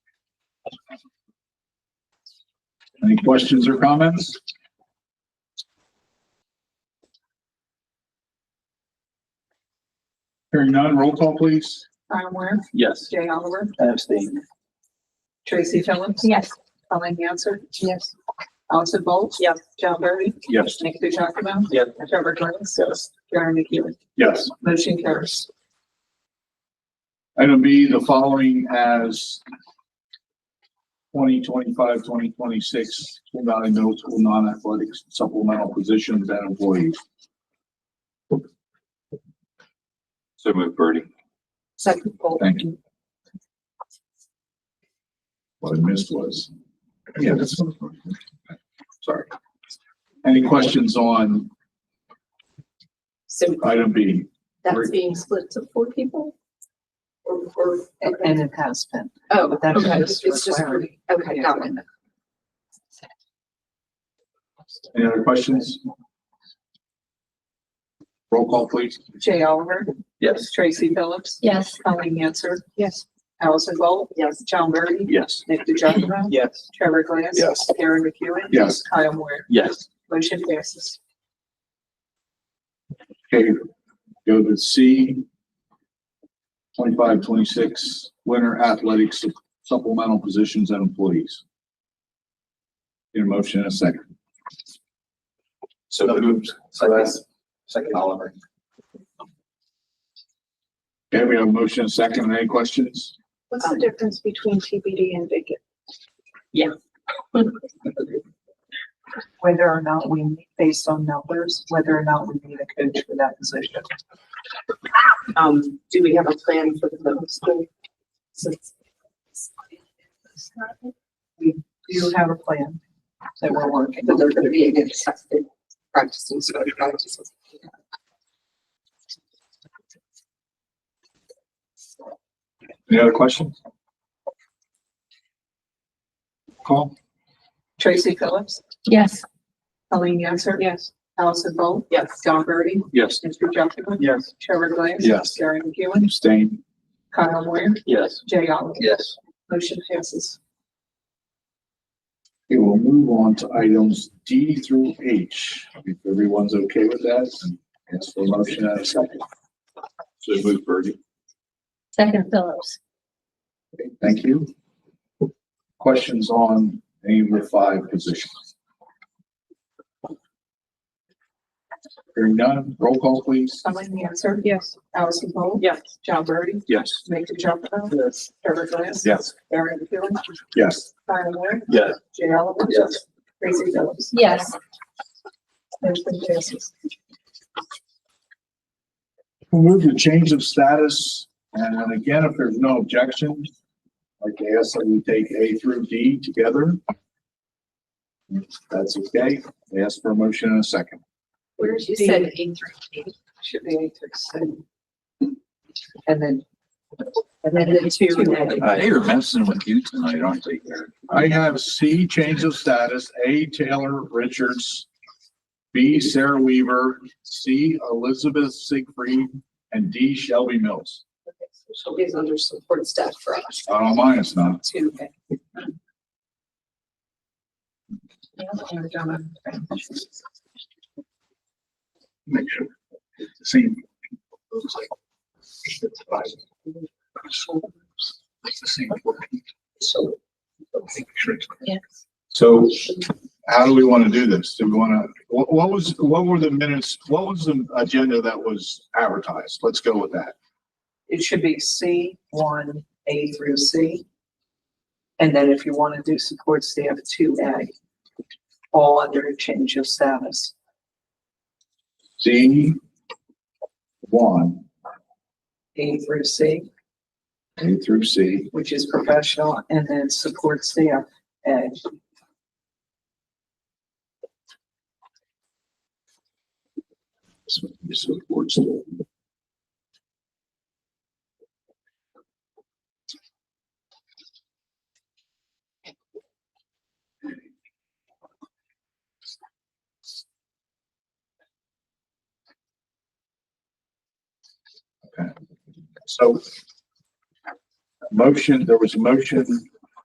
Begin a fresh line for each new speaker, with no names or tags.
Any questions or comments? Hearing none, roll call please.
Brian Warren,
Yes.
Jay Oliver,
Abstain.
Tracy Phillips.
Yes.
Colin Hanson,
Yes.
Allison Bolt.
Yes.
John Burry.
Yes.
Nick DeJonge.
Yes.
Trevor Glass.
Yes.
Karen McEwen.
Yes.
Motion carries.
Item B, the following as 2025-2026 Twin Valley Middle School non-athletic supplemental positions and employees.
So move Birdie.
Second Bolt.
Thank you. What I missed was. Yeah, that's. Sorry. Any questions on
So
item B?
that's being split to four people? Or, or,
And it has been.
oh,
But that's
okay,
just
it's just,
required.
okay, got it.
Any other questions? Roll call, please.
Jay Oliver,
Yes.
Tracy Phillips,
Yes.
Colin Hanson,
Yes.
Allison Bolt. Yes. John Burry.
Yes.
Nick DeJonge.
Yes.
Trevor Glass.
Yes.
Karen McEwen.
Yes.
Kyle Moore.
Yes.
Motion passes.
Okay, go to C. Twenty-five, twenty-six, winter athletics supplemental positions and employees. Need a motion in a second.
So moved.
Second. Second Oliver.
Okay, we have a motion in a second. Any questions?
What's the difference between TBD and vacant?
whether or not we, based on numbers, whether or not we need a coach for that position.
Um, do we have a plan for the middle school? Since
Do you have a plan that we're working?
But they're gonna be in accepted practices, so practices.
Any other questions? Call?
Tracy Phillips,
Yes.
Colleen Yancey,
Yes.
Allison Bolt,
Yes.
John Birdie,
Yes.
Mr. Jumpman,
Yes.
Trevor Glass.
Yes.
Gary McEwen,
Abstain.
Kyle Moore,
Yes.
Jay Oliver.
Yes.
Motion passes.
Okay, we'll move on to items D through H. If everyone's okay with that, ask for a motion in a second.
So move Birdie.
Second Phillips.
Okay, Thank you. Questions on any of the five positions? Hearing none, roll call please.
Colleen Yancey,
Yes.
Allison Bolt,
Yes.
John Birdie,
Yes.
Mr. Jumpman,
Yes.
Trevor Glass.
Yes.
Gary McEwen,
Yes.
Kyle Moore,
Yes.
Jay Oliver.
Yes.
Tracy Phillips.
Yes.
Motion passes.
We'll move to change of status, and again, if there's no objection, like I asked that we take A through D together. If That's okay. I Ask for a motion in a second.
Where's you
said
eight three eight?
Should be eight, six, seven. And then
And then the two.
They are messing with you tonight, aren't they?
I have C, change of status, A, Taylor Richards, B, Sarah Weaver, C, Elizabeth Siegfried, and D, Shelby Mills.
She'll be under support staff for us.
I don't mind, it's not.
Two.
Make sure. Same.
Yes.
So how do we want to do this? Do we want to, what, what was, what were the minutes, what was the agenda that was advertised? Let's go with that.
It should be C one, A through C. And then if you want to do support staff, two A. All under a change of status.
C, one,
A through C,
A through C,
which is professional, and then support staff, A.
So this is board school. Okay. So motion, there was a motion